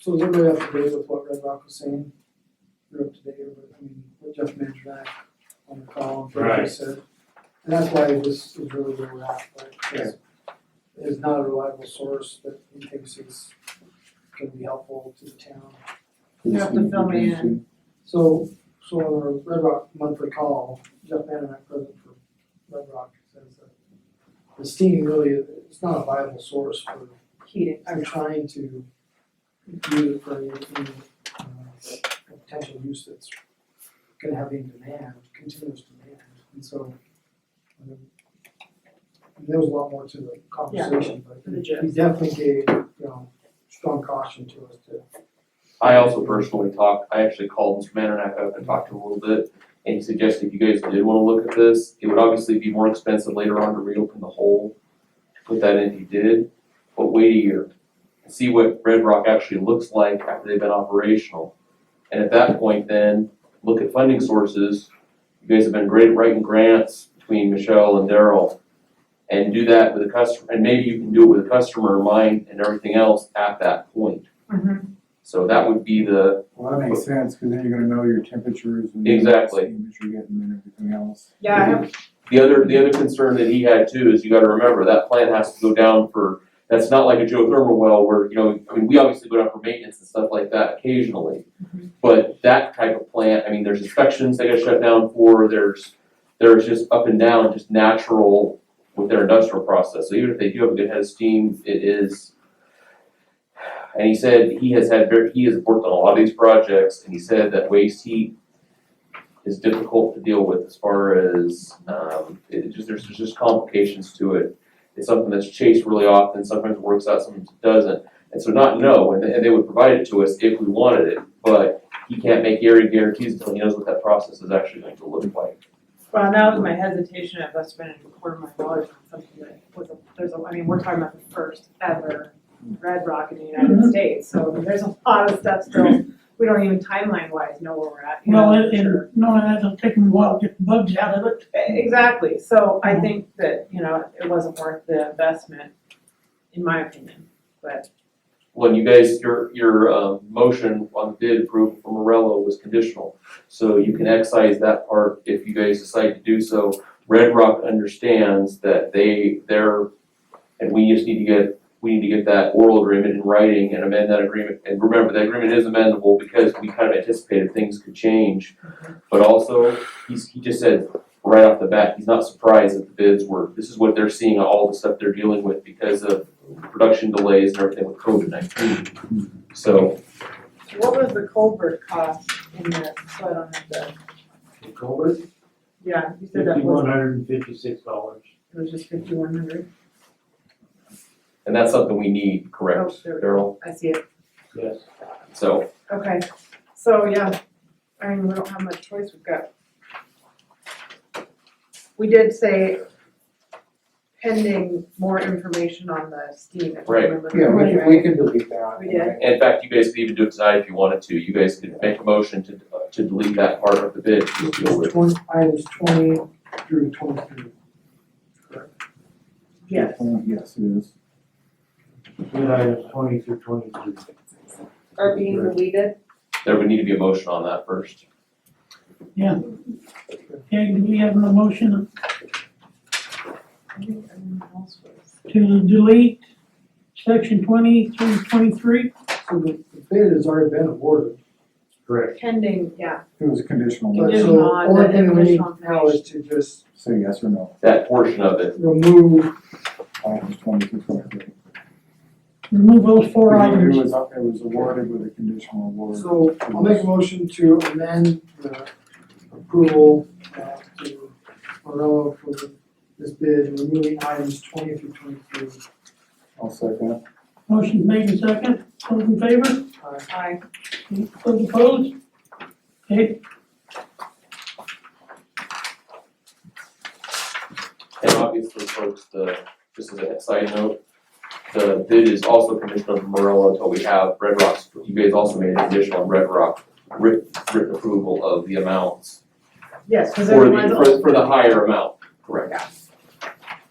So is everybody up to date with what Red Rock was saying? You're up to date, with, I mean, what Jeff Mandrack on the call, and what he Right. said. And that's why this is really where we're at, right? Because It's not a reliable source that he thinks is gonna be helpful to the town. You have to fill me in. So, so on our Red Rock monthly call, Jeff Mandrack, president for Red Rock, says that the steam really, it's not a viable source for heating. I'm trying to use it for any, any, uh, potential use that's gonna have any demand, continuous demand, and so. um, There was a lot more to the conversation, For but the he gist. definitely gave, you know, strong caution to us to, I also personally talked, I actually called Mr. Mananak up and talked to him a little bit, and he suggested if you guys did wanna look at this, it would obviously be more expensive later on to reopen the hole, to put that in if you did, but wait a year, and see what Red Rock actually looks like after they've been operational. And at that point then, look at funding sources, you guys have been great at writing grants between Michelle and Daryl, and do that with a customer, and maybe you can do it with a customer in mind and everything else at that point. Mhm. So that would be the, Well, that makes sense, cause then you're gonna know your temperatures and. Exactly. Temperatures you're getting and everything else. Yeah, I have, The other, the other concern that he had too is you gotta remember, that plant has to go down for, that's not like a geothermal well where, you know, I mean, we obviously go down for maintenance and stuff like that occasionally. Mm-hmm. But that type of plant, I mean, there's inspections they gotta shut down for, there's, there's just up and down, just natural with their industrial process. So even if they do have a good head of steam, it is. And he said he has had very, he has worked on a lot of these projects and he said that waste heat is difficult to deal with as far as, um, it it just, there's, there's just complications to it. It's something that's chased really often, sometimes it works out, sometimes it doesn't. And so not know, and they, and they would provide it to us if we wanted it, but he can't make area guarantees until he knows what that process is actually going to look like. well, that was my hesitation of us spending a quarter of my dollars on something that was, a- there's a, I mean, we're talking about the first ever Red Rock in the United States, so I mean, there's a lot of stuff still, we don't even timeline wise know where we're at, you know? Well, it, and knowing that it'll take them a while to get the bugs out of it. Exactly, so I think that, you know, it wasn't worth the investment, in my opinion, but, When you guys, your, your, um, motion on bid approval for Morello was conditional. So you can excise that part if you guys decide to do so. Red Rock understands that they, they're, and we just need to get, we need to get that oral agreement in writing and amend that agreement. And remember, that agreement is amendable because we kind of anticipated things could change. But also, he's, he just said right off the bat, he's not surprised that the bids were, this is what they're seeing, all the stuff they're dealing with because of production delays and everything with COVID nineteen. So, what was the culvert cost in the, so I don't have the, The culvert, yeah, you said that was, fifty-one hundred and fifty-six dollars. it was just fifty-one hundred, and that's something we need, oh, correct, there we go. Daryl? I see it, Yes. So, okay, so, yeah, I mean, we don't have much choice, we've got. We did say pending more information on the steam, if I Right. remember Yeah, we correctly, can, we can delete that. We did. And In fact, you guys could even do it tonight if you wanted to, you guys could make a motion to, uh, to delete that part of the bid, just deal with it. twenty, items twenty through twenty-three. Yes. Yes, it is. Then items twenty through twenty-two. are being Right. deleted. There would need to be a motion on that first. Okay, do we have a motion I think everyone else was. to delete section twenty through twenty-three? So the the bid has already been awarded, Correct. Pending, yeah, It was a conditional, but Conditional so the on only the thing we need additional now is to just say yes or no, That portion of it, remove, items twenty-two, twenty-three. Remove those four items. It was, up- it was awarded with a conditional award. so I'll make a motion to amend the approval uh to Morello for the- this bid, removing items twenty through twenty-three. I'll second. Motion made in second, those in favor, Uh, I those opposed? Okay, and obviously, folks, the, just as a side note, the bid is also conditional on Morello until we have Red Rock's, you guys also made a condition on Red Rock, writ, written approval of the amounts. Yes, For cause everyone's. the, for, for the higher amount, correct?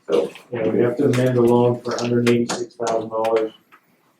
So, Yeah, we have to amend the loan for hundred and eighty-six thousand dollars